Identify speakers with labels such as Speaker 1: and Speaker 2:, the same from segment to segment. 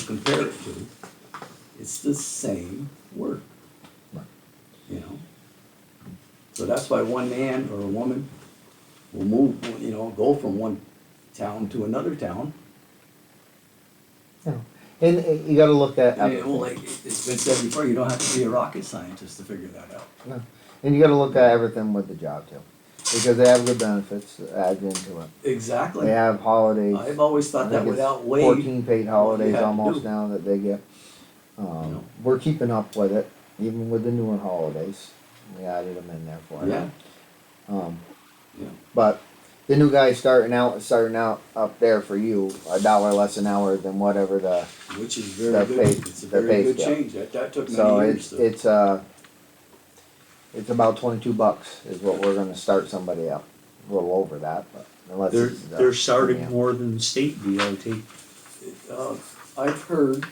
Speaker 1: compare it to, it's the same work.
Speaker 2: Right.
Speaker 1: You know? So that's why one man or a woman will move, you know, go from one town to another town.
Speaker 3: Yeah. And uh, you gotta look at,
Speaker 1: I mean, well, like, it's been said before, you don't have to be a rocket scientist to figure that out.
Speaker 3: no. and you gotta look at everything with the job too. Because they have good benefits added into it.
Speaker 1: Exactly.
Speaker 3: They have holidays.
Speaker 1: I've always
Speaker 3: I
Speaker 1: thought
Speaker 3: think
Speaker 1: that
Speaker 3: it's
Speaker 1: without Wade,
Speaker 3: Fourteen paid holidays
Speaker 1: had to
Speaker 3: almost
Speaker 1: do.
Speaker 3: now that they get.
Speaker 1: No.
Speaker 3: Um, we're keeping up with it, even with the newer holidays. We added them in there for
Speaker 1: yeah,
Speaker 3: you. Um,
Speaker 1: yeah,
Speaker 3: but the new guy starting out, starting out up there for you, a dollar less an hour than whatever the,
Speaker 1: which is very
Speaker 3: Their
Speaker 1: good,
Speaker 3: pay-
Speaker 1: it's a
Speaker 3: their
Speaker 1: very
Speaker 3: pay
Speaker 1: good
Speaker 3: scale.
Speaker 1: change, that, that took
Speaker 3: so
Speaker 1: many years
Speaker 3: it's,
Speaker 1: to,
Speaker 3: it's, uh, it's about twenty-two bucks is what we're gonna start somebody up, a little over that, but unless
Speaker 4: They're,
Speaker 3: it's. uh,
Speaker 4: they're starting
Speaker 3: yeah.
Speaker 4: more than state DOT.
Speaker 1: uh, I've heard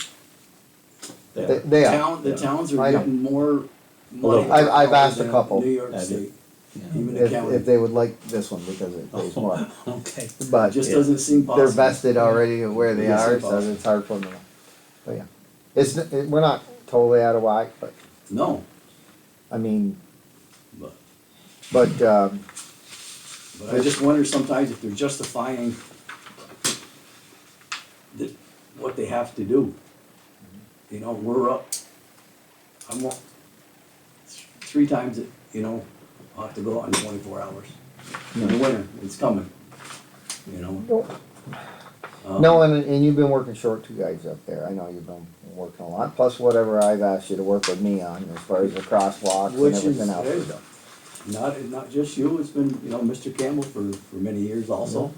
Speaker 3: They,
Speaker 4: That-
Speaker 3: they are,
Speaker 1: town, the
Speaker 4: Yeah.
Speaker 1: towns are
Speaker 3: I know.
Speaker 1: getting more money.
Speaker 4: Although-
Speaker 3: I've- I've asked a
Speaker 1: than
Speaker 3: couple.
Speaker 1: New York
Speaker 4: I
Speaker 1: State,
Speaker 4: did.
Speaker 1: even the
Speaker 3: if, if
Speaker 1: county,
Speaker 3: they would like this one because it pays more,
Speaker 4: Okay.
Speaker 3: but.
Speaker 1: it just
Speaker 4: yeah,
Speaker 1: doesn't seem
Speaker 3: they're
Speaker 1: possible.
Speaker 3: vested already of where they
Speaker 1: Yes,
Speaker 3: are,
Speaker 1: it's
Speaker 3: so
Speaker 1: possible.
Speaker 3: it's hard for them. to- But yeah, it's, n- it- we're not totally out of whack, but,
Speaker 1: No,
Speaker 3: I mean,
Speaker 1: but,
Speaker 3: but, um,
Speaker 1: but I just wonder sometimes if they're justifying the, what they have to do. You know, we're up, I'm up three times, it. you know, I'll have to go out in twenty-four hours. In the winter, it's coming, you know? Um,
Speaker 3: no, and, and you've been working short two guys up there, I know you've been working a lot, plus whatever I've asked you to work with me on as far as the crosswalks and
Speaker 1: Which
Speaker 3: everything
Speaker 1: is-
Speaker 3: else. we're doing.
Speaker 1: Not, not just you, it's been, you know, Mr. Campbell for, for many years also.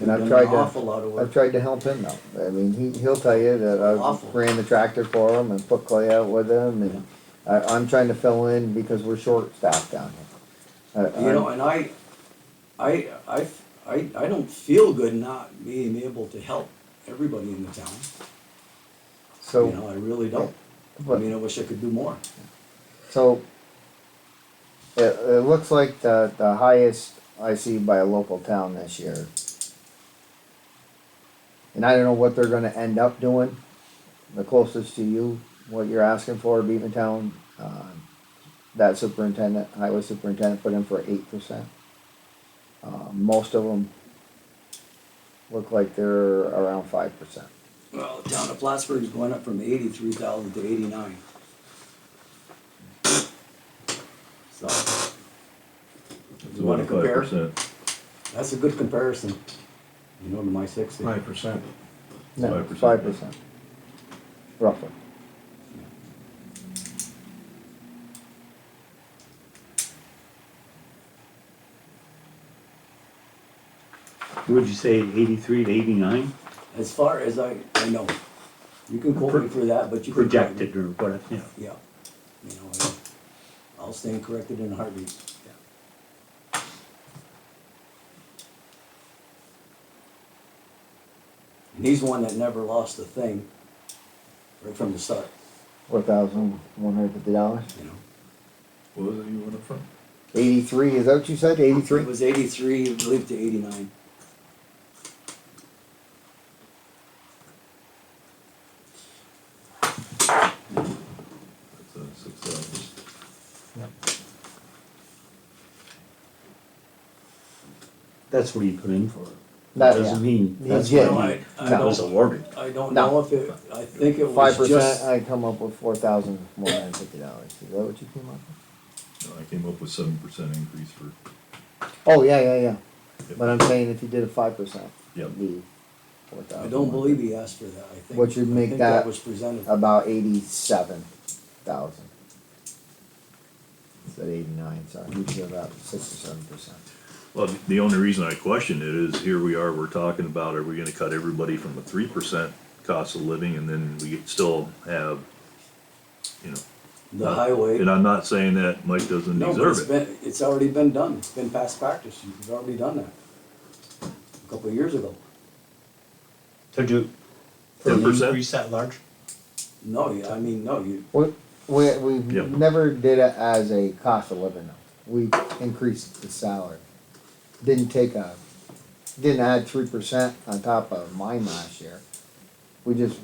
Speaker 3: And I've
Speaker 1: Done
Speaker 3: tried
Speaker 1: an
Speaker 3: to-
Speaker 1: Awful lot of
Speaker 3: I've
Speaker 1: work.
Speaker 3: tried to help him though, I mean, he, he'll tell you that
Speaker 1: Awful.
Speaker 3: I ran the tractor for him and put clay out with him and I, I'm trying to fill in because we're short staffed down here.
Speaker 1: You
Speaker 3: I- I'm-
Speaker 1: know, and I, I, I, I, I don't feel good not being able to help everybody in the town.
Speaker 3: So.
Speaker 1: You know, I really don't. I
Speaker 3: but-
Speaker 1: mean, I wish I could do more.
Speaker 3: So it, it looks like the, the highest I see by a local town this year. And I don't know what they're gonna end up doing, the closest to you, what you're asking for, Beavertown, um, that superintendent, highway superintendent put in for eight percent. Uh, most of them look like they're around five percent.
Speaker 1: Well, the town of Plattsburgh's going up from eighty-three thousand to eighty-nine. So. You wanna compare? That's a good comparison. You know, to my sixty.
Speaker 2: Five percent.
Speaker 3: No,
Speaker 2: 5%.
Speaker 3: five percent. Roughly.
Speaker 4: Would you say eighty-three to eighty-nine
Speaker 1: As far as I, I know, you can quote me for that, but you can.
Speaker 4: projected or what, yeah.
Speaker 1: Yeah, you know, I- I'll stand corrected in a heartbeat. And he's one that never lost a thing right from the start,
Speaker 3: Four thousand one hundred fifty dollars.
Speaker 1: you know.
Speaker 2: What was it you went up from?
Speaker 3: 83, is that what you said?
Speaker 1: It
Speaker 3: 83?
Speaker 1: was eighty-three, I believe, to eighty-nine.
Speaker 2: That's, uh, six thousand.
Speaker 4: That's what he put in for.
Speaker 3: That-
Speaker 4: Doesn't mean,
Speaker 3: He
Speaker 4: that's
Speaker 3: did.
Speaker 4: what
Speaker 1: I- I
Speaker 4: he- that was
Speaker 1: don't-
Speaker 4: awarded.
Speaker 1: I don't
Speaker 3: No.
Speaker 1: know if it, I think it was
Speaker 3: 5%,
Speaker 1: just,
Speaker 3: I come up with $4,150. Is that what you came up with?
Speaker 2: No, I came up with seven percent increase for,
Speaker 3: Oh, yeah, yeah, yeah.
Speaker 2: Yep.
Speaker 3: But I'm saying if you did a 5%,
Speaker 2: Yep.
Speaker 3: it'd be 4000
Speaker 1: I don't believe he asked for that, I think.
Speaker 3: What you'd
Speaker 1: I
Speaker 3: make
Speaker 1: think
Speaker 3: that
Speaker 1: was presented.
Speaker 3: About 87,000. It's at 89, sorry. You did about 6 or 7%.
Speaker 2: well, the- the only reason I question it is here we are, we're talking about, are we gonna cut everybody from a three percent cost of living and then we still have, you know,
Speaker 1: The highway.
Speaker 2: and I'm not saying that Mike doesn't
Speaker 1: No, but it's
Speaker 2: deserve it.
Speaker 1: been, it's already been done, it's been past practice, you've already done that. A couple of years ago.
Speaker 4: To do.
Speaker 2: for an 10%?
Speaker 4: Increase that large?
Speaker 1: No, you- I mean, no, you,
Speaker 3: We, we, we
Speaker 2: Yep.
Speaker 3: never did it as a cost of living. though. We increased the salary. Didn't take a, didn't add three percent on top of mine last year. We just